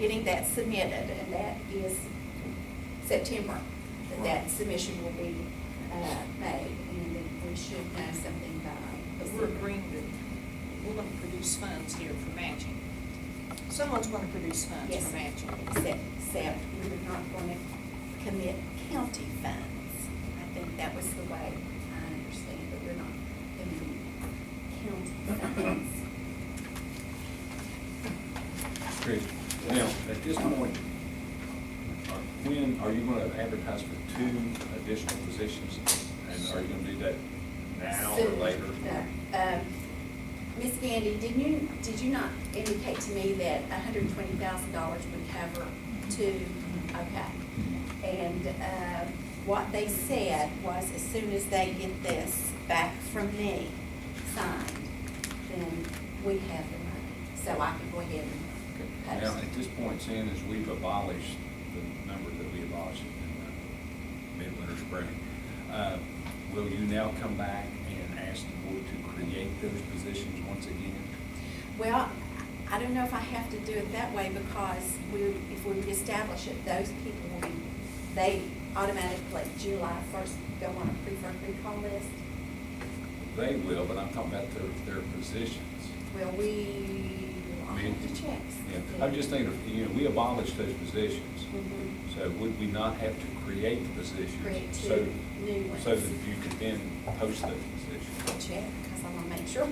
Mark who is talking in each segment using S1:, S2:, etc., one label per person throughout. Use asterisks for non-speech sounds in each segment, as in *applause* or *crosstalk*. S1: getting that submitted, and that is September, that that submission will be, uh, made, and then we should know something by.
S2: But we're agreeing that we're gonna produce funds here for matching. Someone's gonna produce funds
S1: Yes,
S2: for matching.
S1: except, except we're not gonna commit county funds. I think that was the way I understand, that we're not gonna county funds.
S3: Great. Now, at this point, are- when are you gonna advertise for two additional positions? And are you gonna do that now or
S1: Soon.
S3: later?
S1: No. Um, Ms. Gandy, did you, did you not indicate to me that hundred and twenty thousand dollars would cover two? Okay. And, uh, what they said was as soon as they get this back from me signed, then we have the money. So I can go ahead
S3: Okay.
S1: and
S3: Now,
S1: post.
S3: at this point, seeing as we've abolished the number that we abolished in the midwinter spring, uh, will you now come back and ask the board to create those positions once again?
S1: Well, I don't know if I have to do it that way because we, if we reestablish it, those people will be, they automatically July first go on a preferred recall list.
S3: They will, but I'm talking about their, their positions.
S1: Well, we, I'll have to check.
S3: Yeah, I'm just thinking, you know, we abolished those positions,
S1: Mhm.
S3: so would we not have to create the positions?
S1: Create two
S3: so-
S1: new ones.
S3: So that you could then post those positions?
S1: I'll check, because I want to make sure.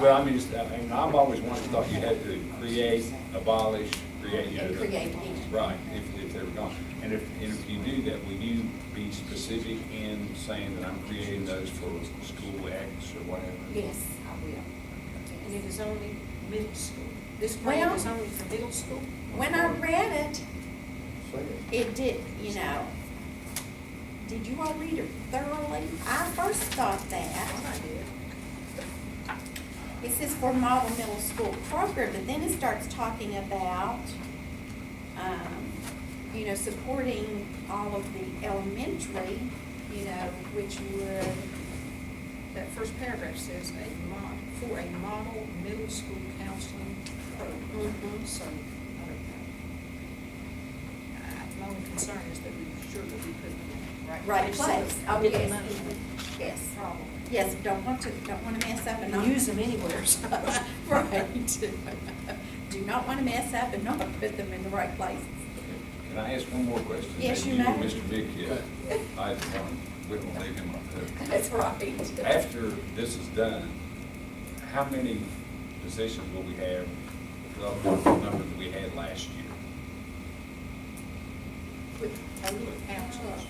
S3: Well, I mean, just, I mean, I've always wanted, thought you had to create, abolish, create. you know,
S1: And
S3: the-
S1: create again.
S3: Right, if, if they were gone. And if, and if you do that, will you be specific in saying that I'm creating those for school X or whatever?
S1: Yes, I will.
S2: And
S1: Yes.
S2: it is only middle school. This plan
S1: Well-
S2: is only for middle school.
S1: When I read it, it did, you know, did you all read it thoroughly? I first thought that. I did. It says for model middle school program, but then it starts talking about, um, you know, supporting all of the elementary, you know, which would,
S2: That first paragraph says a mod, for a model middle school counseling program.
S1: Mhm.
S2: So, I don't know. Uh, My only concern is that we sure that we put them in the right.
S1: right
S2: so
S1: place. Oh,
S2: get the
S1: yes.
S2: money.
S1: Yes,
S2: Problem.
S1: yes, don't want to, don't want to mess up and not.
S2: And use them anywhere, so.
S1: *laughs* Right.
S2: *laughs*
S1: Do not want to mess up and not put them in the right places.
S3: Can I ask one more question?
S1: Yes,
S3: Maybe
S1: you
S3: and
S1: may.
S3: Mr. Vick, yeah, I don't, we don't leave him up there.
S1: *laughs* That's right.
S3: After this is done, how many positions will we have, relative to the number that we had last year?
S2: Total counselors.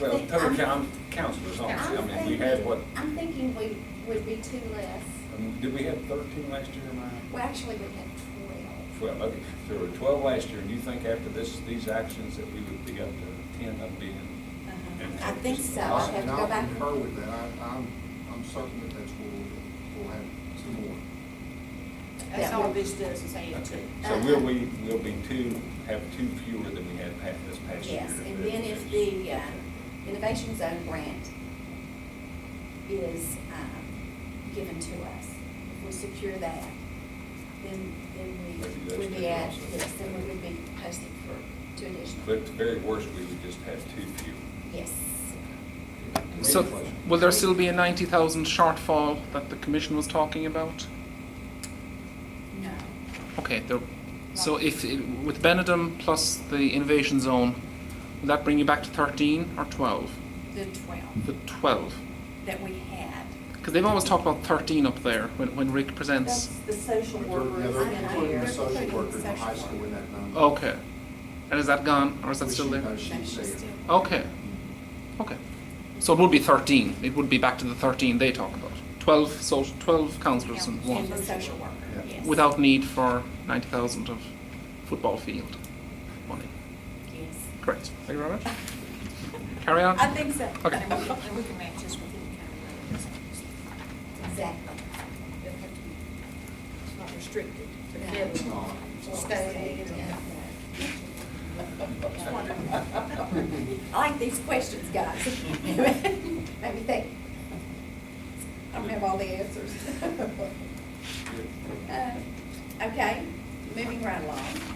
S3: Well, total coun- counselors, honestly, I mean, we had what,
S1: I'm thinking we would be two less.
S3: um, did we have thirteen last year, Ryan?
S1: Well, actually, we had twelve.
S3: Twelve, okay, so there were twelve last year, and you think after this, these actions that we would be up to ten of being?
S1: Uh-huh. I think so.
S4: And
S1: I have to go back.
S4: And I'll concur with that, I, I'm, I'm certain that that's where we'll, we'll have two more.
S2: That's all this does is add to.
S3: Okay,
S2: it.
S3: So will we, will be two, have two fewer than we had pa- this past year?
S1: Yes, and then if the uh, Innovation Zone grant is um, given to us, if we secure that, then, then we
S3: Maybe
S1: would
S3: those
S1: be
S3: two
S1: at,
S3: also.
S1: yes, then we would be posted for two
S3: But
S1: additional.
S3: at the very worst, we would just have two fewer.
S1: Yes.
S5: So,
S3: Any questions?
S5: will there still be a ninety thousand shortfall that the commission was talking about?
S1: No.
S5: Okay, there, so if, it- with Benedum plus the innovation zone, will that bring you back to thirteen or twelve?
S1: The twelve
S5: The twelve,
S1: that we had.
S5: because they've always talked about thirteen up there when, when Rick
S1: That's
S5: presents.
S1: the social
S4: But they're- yeah,
S1: workers
S4: they're
S1: in
S4: Including
S1: there.
S4: the social
S1: Including
S4: worker in the
S1: social
S4: high school in
S1: worker.
S4: that number.
S5: Okay, and is that gone, or is that
S4: Which
S5: Oh, still
S4: she-
S5: there?
S4: no, she's
S1: No, she's
S4: there.
S1: still-
S5: Okay,
S4: Mm-hmm.
S5: okay, so it would be thirteen, it would be back to the thirteen they talk about, twelve, so, twelve councillors and one.
S1: And the social worker,
S4: Yeah.
S1: yes.
S5: without need for 90,000 of football field money.
S1: Yes.
S5: Correct. Thank you very much. Carry on.
S1: I think so.
S5: Okay.
S2: And we can- and we can match this with any kind of money.
S1: Exactly.
S2: They'll have to be- It's not restricted. but
S1: No.
S2: they'll
S4: It's not.
S2: Stay. Just wondering.
S1: *laughs* I like these questions, guys. *laughs* Let me think. I don't have all the *laughs* answers. Uh, Okay, moving right along.